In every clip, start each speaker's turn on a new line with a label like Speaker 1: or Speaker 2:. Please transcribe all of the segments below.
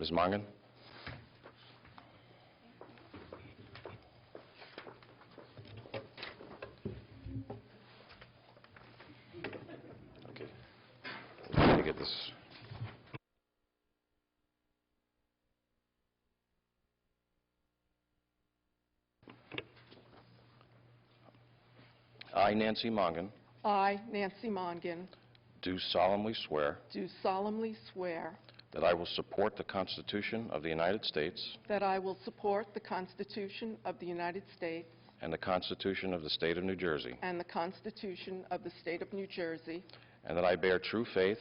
Speaker 1: Ms. Mongan? Okay. Let me get this. I, Nancy Mongan,
Speaker 2: I, Nancy Mongan,
Speaker 1: do solemnly swear
Speaker 2: do solemnly swear
Speaker 1: that I will support the Constitution of the United States
Speaker 2: that I will support the Constitution of the United States
Speaker 1: and the Constitution of the State of New Jersey,
Speaker 2: and the Constitution of the State of New Jersey,
Speaker 1: and that I bear true faith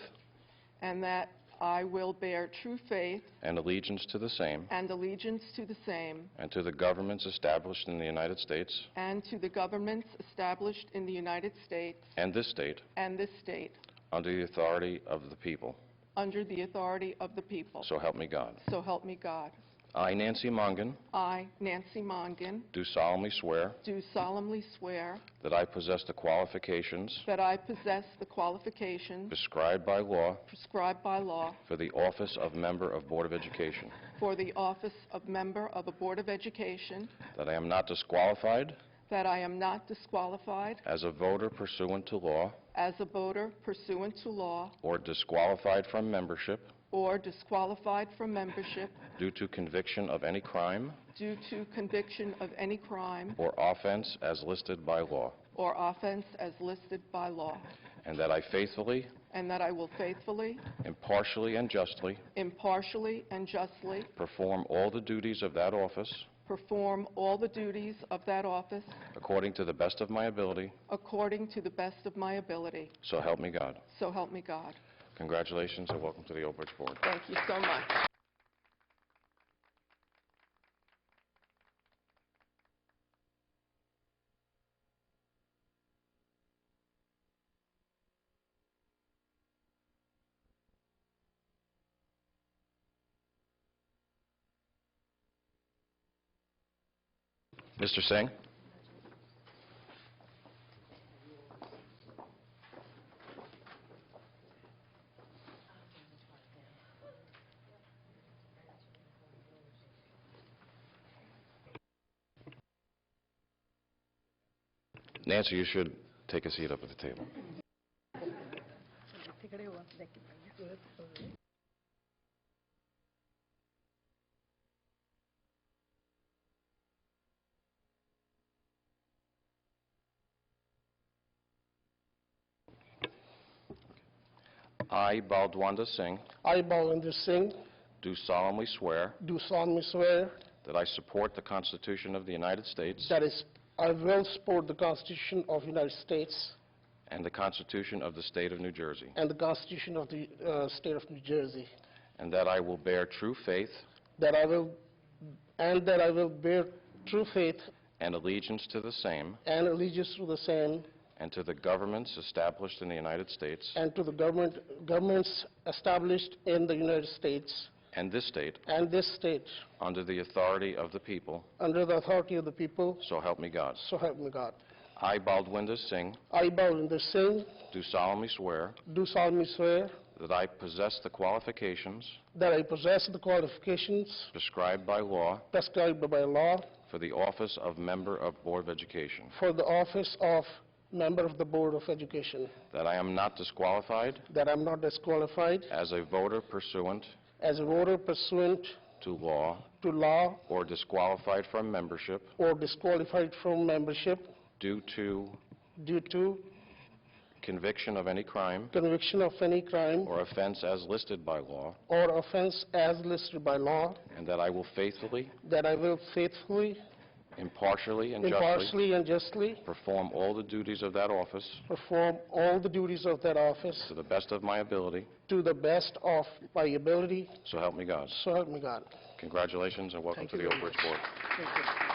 Speaker 2: and that I will bear true faith
Speaker 1: and allegiance to the same
Speaker 2: and allegiance to the same
Speaker 1: and to the governments established in the United States
Speaker 2: and to the governments established in the United States
Speaker 1: and this state
Speaker 2: and this state
Speaker 1: under the authority of the people.
Speaker 2: under the authority of the people.
Speaker 1: So help me God.
Speaker 2: So help me God.
Speaker 1: I, Nancy Mongan,
Speaker 2: I, Nancy Mongan,
Speaker 1: do solemnly swear
Speaker 2: do solemnly swear
Speaker 1: that I possess the qualifications
Speaker 2: that I possess the qualifications
Speaker 1: prescribed by law
Speaker 2: prescribed by law
Speaker 1: for the office of Member of Board of Education,
Speaker 2: for the office of member of a Board of Education,
Speaker 1: that I am not disqualified
Speaker 2: that I am not disqualified
Speaker 1: as a voter pursuant to law
Speaker 2: as a voter pursuant to law
Speaker 1: or disqualified from membership
Speaker 2: or disqualified from membership
Speaker 1: due to conviction of any crime
Speaker 2: due to conviction of any crime
Speaker 1: or offense as listed by law,
Speaker 2: or offense as listed by law,
Speaker 1: and that I faithfully,
Speaker 2: and that I will faithfully,
Speaker 1: impartially, and justly
Speaker 2: impartially, and justly
Speaker 1: perform all the duties of that office
Speaker 2: perform all the duties of that office
Speaker 1: according to the best of my ability,
Speaker 2: according to the best of my ability.
Speaker 1: so help me God.
Speaker 2: So help me God.
Speaker 1: Congratulations and welcome to the Old Bridge Board.
Speaker 2: Thank you so much.
Speaker 1: Mr. Singh? Nancy, you should take a seat up at the table. I, Baldwanda Singh,
Speaker 3: I, Balwinder Singh,
Speaker 1: do solemnly swear
Speaker 3: do solemnly swear
Speaker 1: that I support the Constitution of the United States
Speaker 3: that is, I will support the Constitution of the United States
Speaker 1: and the Constitution of the State of New Jersey,
Speaker 3: and the Constitution of the uh, State of New Jersey,
Speaker 1: and that I will bear true faith
Speaker 3: that I will, and that I will bear true faith
Speaker 1: and allegiance to the same
Speaker 3: and allegiance to the same
Speaker 1: and to the governments established in the United States
Speaker 3: and to the government, governments established in the United States
Speaker 1: and this state
Speaker 3: and this state
Speaker 1: under the authority of the people,
Speaker 3: under the authority of the people,
Speaker 1: so help me God.
Speaker 3: so help me God.
Speaker 1: I, Baldwinda Singh,
Speaker 3: I, Balwinder Singh,
Speaker 1: do solemnly swear
Speaker 3: do solemnly swear
Speaker 1: that I possess the qualifications
Speaker 3: that I possess the qualifications
Speaker 1: prescribed by law
Speaker 3: prescribed by law
Speaker 1: for the office of Member of Board of Education,
Speaker 3: for the office of member of the Board of Education,
Speaker 1: that I am not disqualified
Speaker 3: that I'm not disqualified
Speaker 1: as a voter pursuant
Speaker 3: as a voter pursuant
Speaker 1: to law
Speaker 3: to law
Speaker 1: or disqualified from membership
Speaker 3: or disqualified from membership
Speaker 1: due to
Speaker 3: due to
Speaker 1: conviction of any crime
Speaker 3: conviction of any crime
Speaker 1: or offense as listed by law,
Speaker 3: or offense as listed by law,
Speaker 1: and that I will faithfully,
Speaker 3: that I will faithfully,
Speaker 1: impartially, and justly
Speaker 3: impartially, and justly
Speaker 1: perform all the duties of that office
Speaker 3: perform all the duties of that office
Speaker 1: to the best of my ability,
Speaker 3: to the best of my ability,
Speaker 1: so help me God.
Speaker 3: so help me God.
Speaker 1: Congratulations and welcome
Speaker 3: Thank
Speaker 1: to
Speaker 3: you
Speaker 1: the Oak
Speaker 3: very
Speaker 1: Ridge Board.
Speaker 3: Thank you.